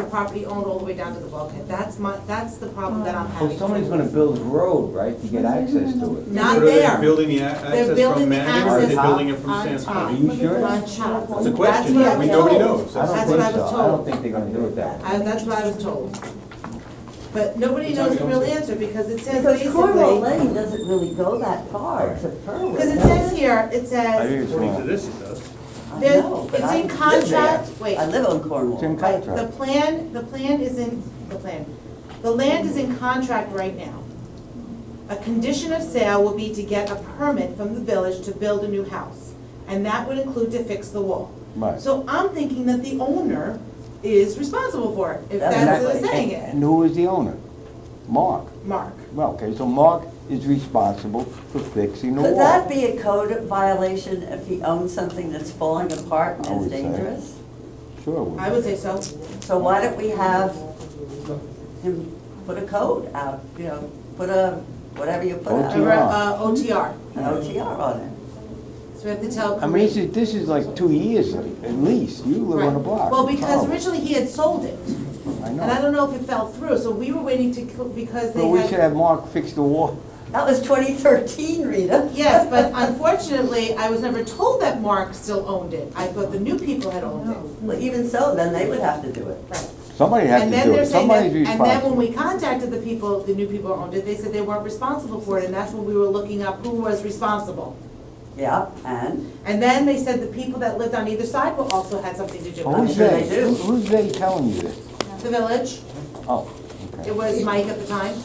property owned all the way down to the bulkhead. That's my, that's the problem Oh, that I'm Well, having. somebody's gonna build a road, right, to get access to it. Not Whether they're there. Building the a- They're access building from the Manning or access they're building it on from Are top. Sanskrit. you sure? On Chop. It's a That's question, what I we, was nobody told. knows. I That's don't what I think so, was I don't told. think they're gonna do it that way. I, that's what I was told. But nobody knows the real answer because it says Because Cornwall basically, Lane doesn't really go that far to Berlin. because it says here, it I says, think it's According to wrong. this, it does. I There's- know, but it's I in live contract- there. wait. I live on Cornwall. It's in right, the contract. plan, the plan is in, the plan, the land is in contract right now. A condition of sale will be to get a permit from the village to build a new house, and that would include to fix the wall. Right. So I'm thinking that the owner is responsible for it, if That's that's what exactly- it's saying it, And who is the owner? Mark. Mark. Well, okay, so Mark is responsible for fixing the Could that wall. be a code violation if he owns something that's falling apart I and would is say. dangerous? Sure. I would. would say so. So why don't we have him put a code out, you know, put a, whatever you put A re- OTR. out, uh, OTR, an OTR on it. so we have to tell. I mean, this is, this is like two years at least, you live on the Right. block. Well, It's because horrible. originally he had sold it, I and I know. don't know if it fell through, so we were waiting to, co- because they Well, we should had. have Mark fix the wall. That was twenty thirteen, Rita. Yes, but unfortunately, I was never told that Mark still owned it. I thought the new people had owned it. Well, even so, then they would have to do it. Right. Somebody has to And then do they're it, saying that, somebody's and then when responsible. we contacted the people, the new people who owned it, they said they weren't responsible for it, and that's when we were looking up who was responsible. Yeah, and And then they said the people that lived on either side were also had something to do Well, with Who's I'm sure they, they do. Who- who's they telling you this? it. The village, Oh, okay, it was Mike at the time.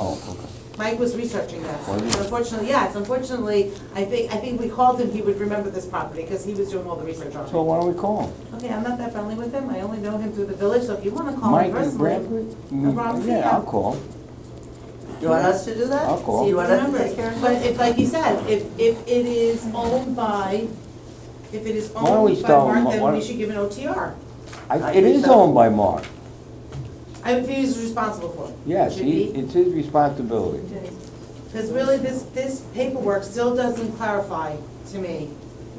oh, okay. Mike was researching that. Was he? Unfortunately, yes, unfortunately, I think, I think we called him, he would remember this property, because he was doing all the research on So it. why don't we call him? Okay, I'm not that friendly with him, I only know him through the village, so if you wanna call Mike him and personally. Bradford? I'm Rob Mm, Yeah, I'll Seah. call. you want us to do that? I'll call. Do See, you want us to remember, take care of but it? if, like you said, if, if it is owned by, if it is Why don't we owned by start with Mark, Ma- why then we don't- should give an OTR. I- I It think is so. owned by Mark, I, if he's responsible for it. yes, Should he, be. it's his responsibility. Because really, this, this paperwork still doesn't clarify to me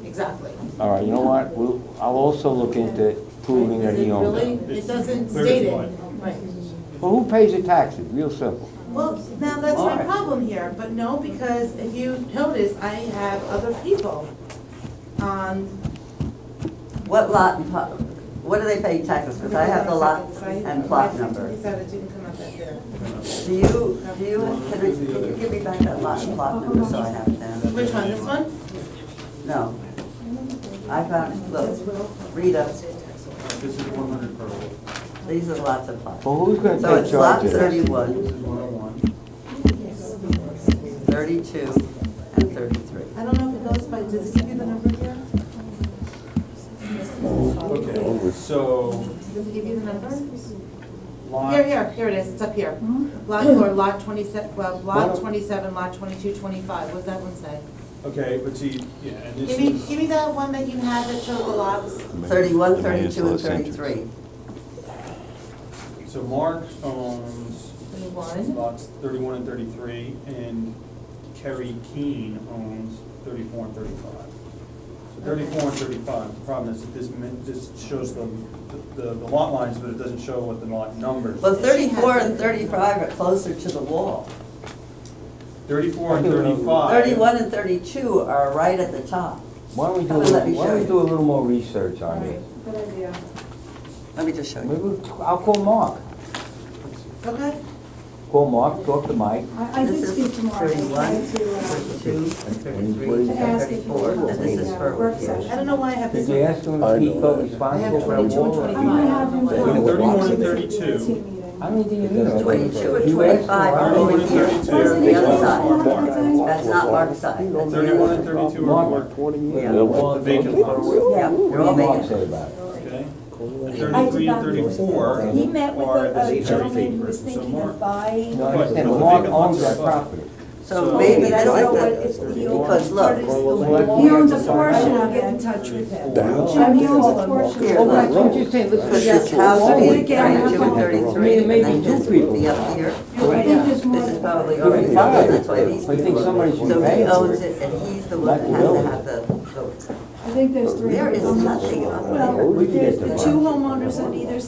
exactly. All right, you know what, we'll, I'll also look into proving that he owns Really, it. It doesn't Where is state it. what? Right. Well, who pays the taxes, real simple. Well, now, that's my Alright. problem here, but no, because if you notice, I have other people on, What lot and plot, what do they pay taxes, because I have the lot and plot number. He said it didn't come up that there. Do you, do you, can we- can you give me back that lot and plot number so I have it down? Which one, this one? No. I found, look, Rita, This is one hundred per roll. these are lots of plots. Well, who's gonna So take it's lot charge of it? This thirty-one, is one oh one. thirty-two, and thirty-three. I don't know if it goes by, does it give you the number here? Okay, so, Does it give you the number? lot. Here, here, here it is, it's up here. Lot four, lot twenty-seven, well, lot Well- twenty-seven, lot twenty-two, twenty-five, what does that one say? okay, but see, yeah, and this Give me, is, give me that one that you had that showed the lots. Thirty-one, thirty-two, and thirty-three. so Mark owns Thirty-one. lots thirty-one and thirty-three, and Kerry Keene owns thirty-four and thirty-five. So thirty-four and thirty-five, the problem is that this, min- this shows the, the, the lot lines, but it doesn't show what the lot numbers. Well, thirty-four and thirty-five are closer to the wall. Thirty-four and thirty-five. Thirty-one and thirty-two are right at the top. Why don't we do, a Let little- me show why don't we you. do a little more research on this? Good idea. Let me just show Maybe, you. we'll- I'll call Mark. Okay. Call Mark, talk to Mike. I, I did This speak is to Mark, I thirty-one, tried to, uh, thirty-two, What thirty-three, is to ask if he thirty-four, wanted and this is to, uh, for work OTR. session. I don't know why I have Did this you one. ask him I if he know felt it. I have responsible for the 22 and wall? or I'm gonna have not? 25. him. They know what blocks it is. How many do you need? That's Twenty-two and You asked him, twenty-five I are don't over know. here. Thirty-two. That's the other side. Mark. That's not Mark's side. That's the Thirty-one other and side. thirty-two are Mark. Mark, Well, the vacant lots. Yeah, What they're all did Mark vacant. say about it? okay? Thirty- Thirty-three and not- thirty-four are He met with at a- the a gentleman same who was person, so thinking Mark. of buying. No, I But understand, the but Mark vacant lots owns are that above. property. So So- maybe But I don't that's know like what that. is the Because open look, part is the wall. Cornwall He owns a Lane- portion of it. Get in touch with him. Well, Jim, he owns a portion. Here, Oh, look. right, what you saying, let's. Because this house Oh, would wait. be thirty-two and thirty-three, Maybe- and maybe then two this would be people. up here. I think there's more than This is that. probably already Right. covered, that's why these I people. think somebody should So pay he for owns it. it, and he's the Not one that the has to building. have the vote. I think there's three. There is homeowners. nothing on Well, We can get there's the the box. two homeowners on either